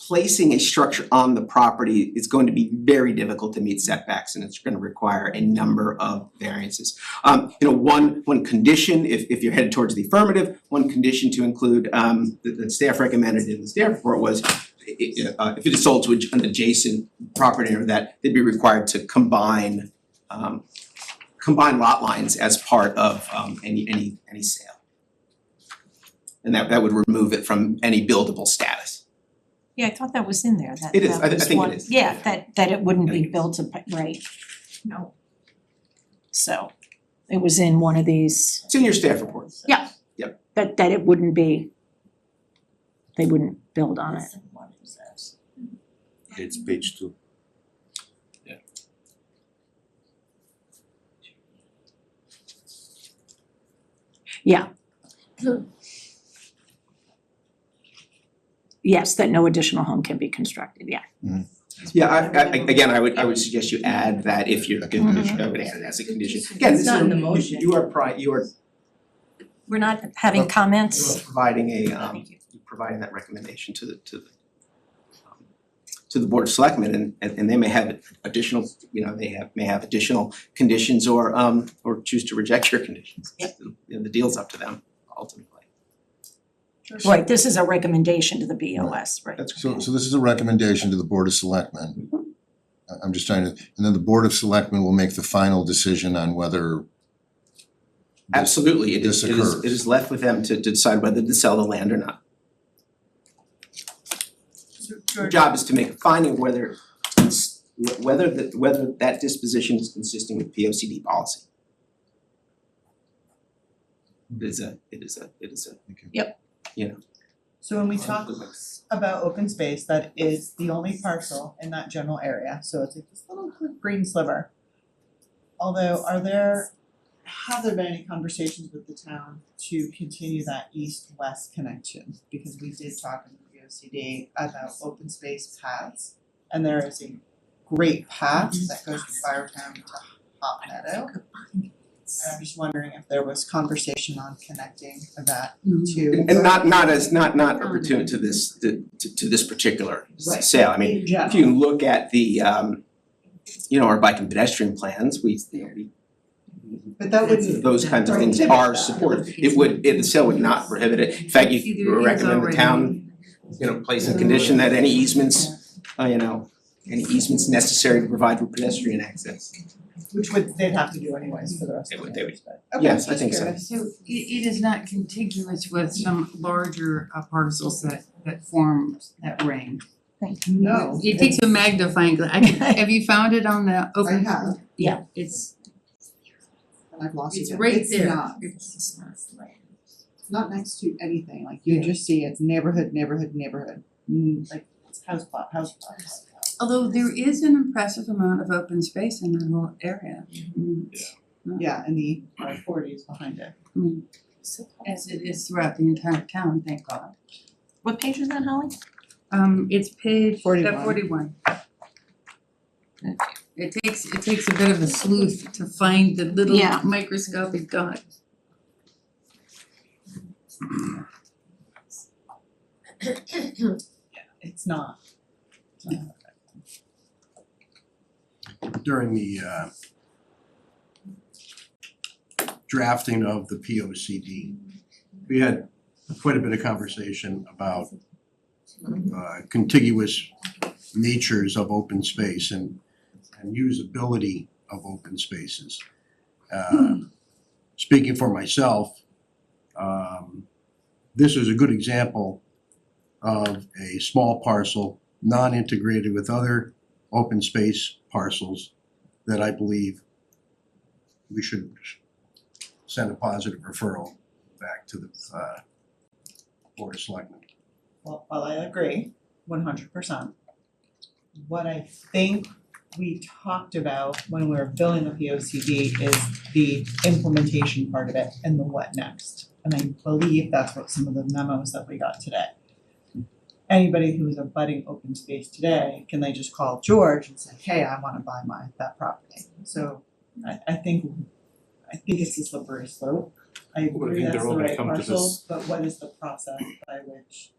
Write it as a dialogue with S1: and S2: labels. S1: placing a structure on the property is going to be very difficult to meet setbacks and it's gonna require a number of variances. Um, you know, one, one condition, if, if you're headed towards the affirmative, one condition to include, um, that, that staff recommended in the staff report was i- i- uh, if it is sold to adj- an adjacent property or that, they'd be required to combine, um, combine lot lines as part of, um, any, any, any sale. And that, that would remove it from any buildable status.
S2: Yeah, I thought that was in there, that
S1: It is. I thi-
S2: that
S1: I
S2: was
S1: think it
S2: one-
S1: is.
S2: yeah, that that it wouldn't
S1: I
S2: be
S1: think
S2: built up, right? No. So it was in one of these,
S1: It's in your staff report.
S2: that that it wouldn't be, they wouldn't build on it.
S3: It's page two.
S2: Yeah. Yes, that no additional home can be constructed, yeah.
S1: Yeah, I I again, I would I would suggest you add that if you're, if- I would add it as a condition. Again,
S4: Mm-hmm. It's
S1: this
S4: not in the
S1: is-
S4: motion.
S1: You are pri- you are
S2: We're not having
S1: you are
S2: comments?
S1: providing a um you're providing that recommendation to the to the um, to the board of selectmen and and and they may have additional, you know, they have may have additional conditions or um or choose to reject your conditions. You know, the deal's up to them ultimately.
S2: Right, this is a recommendation to the BOS, right?
S1: That's
S3: So so this is a recommendation to the Board of Selectmen. I I'm just trying to, and then the Board of Selectmen will make the final decision on whether this-
S1: Absolutely, it is
S3: this
S1: it is
S3: occurs.
S1: it is left with them to to decide whether to sell the land or not. Your job is to make a finding of whether it's, wh- whether the, whether that disposition is consistent with P O C D policy. It is a, it is a, it is a,
S5: So when we talk about open space, that is the only parcel in that general area, so it's like this little green sliver. Although, are there, have there been any conversations with the town to continue that east-west connection? Because we did talk in the P O C D about open space paths, and there is a great path that goes from Firetown to Hot Meadow. And I'm just wondering if there was conversation on connecting that to.
S1: and and not, not as, not, not opportune to this, to, to to this particular
S5: Right.
S1: s- sale, I mean,
S5: In
S1: if
S5: general.
S1: you look at the, um, you know, our bike and pedestrian plans, we, you know, we,
S5: But that would
S1: those kinds of things
S5: Prohibit
S1: are
S5: that.
S1: supported, it would, it, the sale would not prohibit it, in fact, you recommend the town you know, place a condition that any easements, uh, you know, any easements necessary to provide for pedestrian access.
S5: which would they'd have to do anyways for the rest
S1: They
S5: of
S1: would-
S5: the
S1: they
S5: years, but
S1: Yes, I think so.
S6: So it it is not contiguous with some larger uh, parcels that that form that ring.
S5: No.
S6: It takes a magnifying glass. I can- have you found it on the
S5: I
S6: open?
S5: have,
S6: Yeah, it's
S5: and I've lost it.
S6: it's right
S5: It's
S6: there.
S5: not,
S6: It's
S5: it's not next to anything, like you just see it's neighborhood, neighborhood, neighborhood, Mm, like it's house plot, house plot, house plot.
S6: Although there is an impressive amount of open space in that whole area. Mm,
S5: Yeah, and the R forty is behind it.
S6: I mean, As it is throughout the entire town, thank God.
S2: What page is that, Holly?
S6: Um it's page uh
S5: 41.
S6: forty one. It takes it takes a bit of a sleuth to find the little
S2: Yeah.
S6: microscopic dot.
S5: It's not. It's not.
S7: during the uh drafting of the P O C D, we had quite a bit of conversation about uh contiguous natures of open space and and usability of open spaces. Uh speaking for myself, um this is a good example of a small parcel, non-integrated with other open space parcels that I believe we should send a positive referral back to the uh Board of Selectmen.
S5: Well, while I agree one hundred percent, what I think we talked about when we were building the P O C D is the implementation part of it and the what next. And I believe that's what some of the memos that we got today. Anybody who is a budding open space today, can they just call George and say, hey, I wanna buy my, that property? So I I think, I think it's a slippery slope. I
S8: Well, I
S5: agree
S8: think
S5: that's
S8: they're
S5: the
S8: all gonna
S5: right
S8: come to
S5: parcel,
S8: this-
S5: but what is the process by which